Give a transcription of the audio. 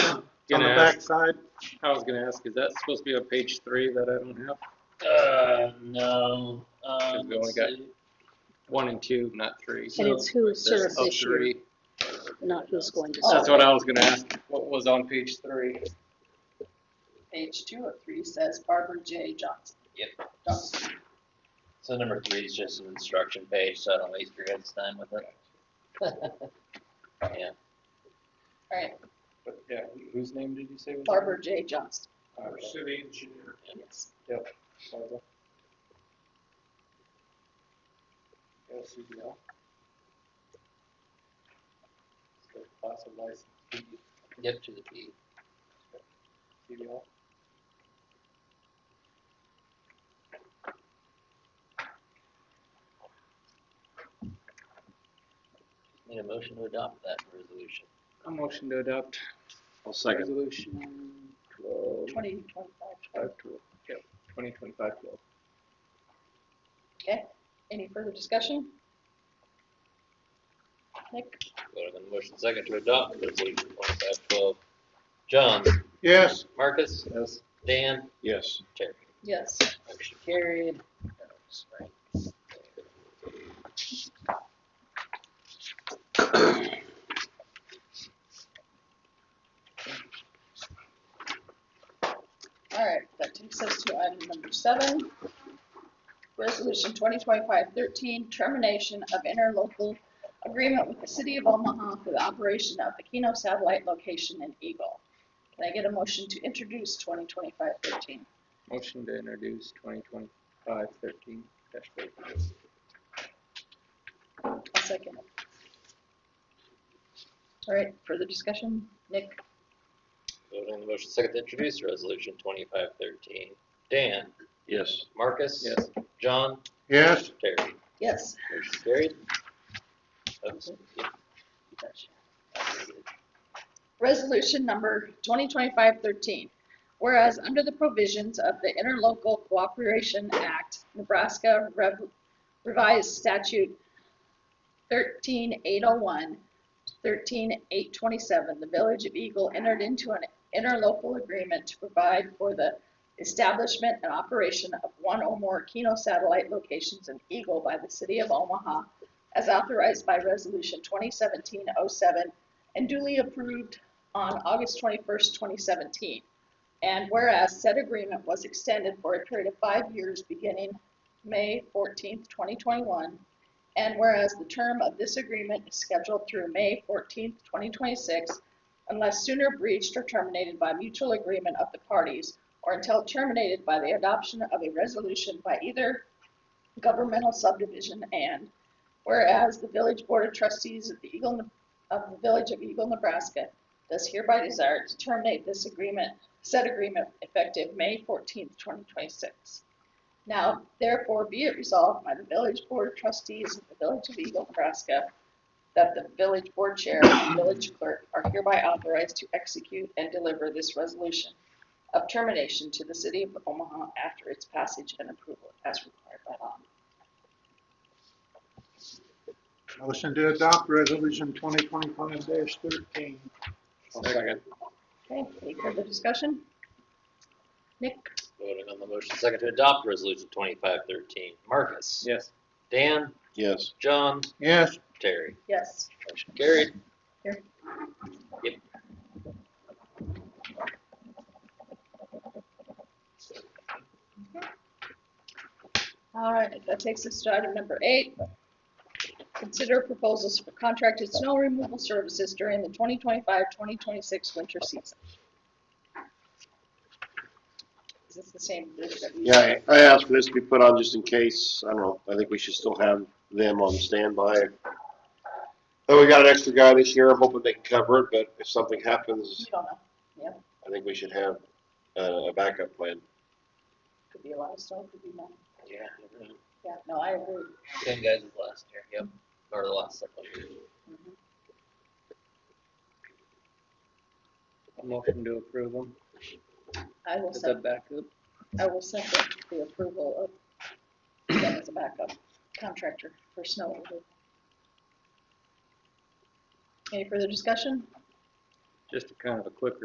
backside? I was gonna ask, is that supposed to be on page three that I don't have? Uh, no, um, we only let's got- see. One and two, not three. And So it's who served Oh, this year, three. not who's going to That's serve. what I was gonna ask. What was on page three? Page two of three says Barbara J. Johnson. Yep. Johnson. So number three is just an instruction page, so I don't waste your guys' time with it. Yeah, All right, But yeah, whose name did you say was? Barbara J. Johnson, Oh. Our city engineer. yes. Yep. Class of license, get to the P. CDL. Need a motion to adopt that resolution. A motion to adopt. I'll second. Resolution twelve, Twenty, twenty-five, twenty. five twelve, yep, twenty twenty-five twelve. Okay, any further discussion? Nick? Voted on the motion second to adopt resolution twenty-five twelve. John, Yes. Marcus, Yes. Dan, Yes. Terry. Yes. Motion carried. That's right. All right, that takes us to item number seven. Resolution 2025-13, termination of interlocal agreement with the City of Omaha for the operation of the Keno satellite location in Eagle. Can I get a motion to introduce 2025-13? Motion to introduce twenty twenty-five thirteen dash fourteen. I'll second it. All right, further discussion? Nick? Voted on the motion second to introduce resolution twenty-five thirteen. Dan, Yes. Marcus. Yes. John, Yes. Terry. Yes. Motion carried. Oops, yeah, I did. Resolution number 2025-13, whereas under the provisions of the Interlocal Cooperation Act, Nebraska Rev- Revised Statute 13801, 13827, the Village of Eagle entered into an interlocal agreement to provide for the establishment and operation of one or more Keno satellite locations in Eagle by the City of Omaha, as authorized by Resolution 2017-07, and duly approved on August 21st, 2017. And whereas said agreement was extended for a period of five years beginning May 14th, 2021, and whereas the term of this agreement is scheduled through May 14th, 2026, unless sooner breached or terminated by mutual agreement of the parties, or until terminated by the adoption of a resolution by either governmental subdivision and, whereas the Village Board of Trustees of the Eagle of the Village of Eagle, Nebraska, does hereby desire to terminate this agreement, said agreement effective May fourteenth, twenty twenty-six. Now therefore be it resolved by the Village Board of Trustees of the Village of Eagle, Nebraska, that the Village Board Chair and Village Clerk are hereby authorized to execute and deliver this resolution of termination to the City of Omaha after its passage and approval as required by law. Motion to adopt resolution twenty twenty-five thirteen. Second. Okay, any further discussion? Nick? Voting on the motion second to adopt resolution twenty-five thirteen. Marcus. Yes. Dan, Yes. John, Yes. Terry. Yes. Motion carried. All right, that takes us to item number eight. Consider proposals for contracted snow removal services during the 2025-2026 winter season. Is this the same group that we? Yeah, I I asked for this to be put on just in case, I don't know, I think we should still have them on standby. Oh, we got an extra guy this year, I'm hoping they can cover it, but if something We happens, don't know, I think we should have uh, a backup plan. could be a lot of snow, could be none. Yeah. Yeah, no, I agree. Same guys as last year, yep, or the last second. Mhm. A motion to approve them. I will Is that send, backup? I will second the approval of them as a backup contractor for snow removal. Any further discussion? Just a kind of a quick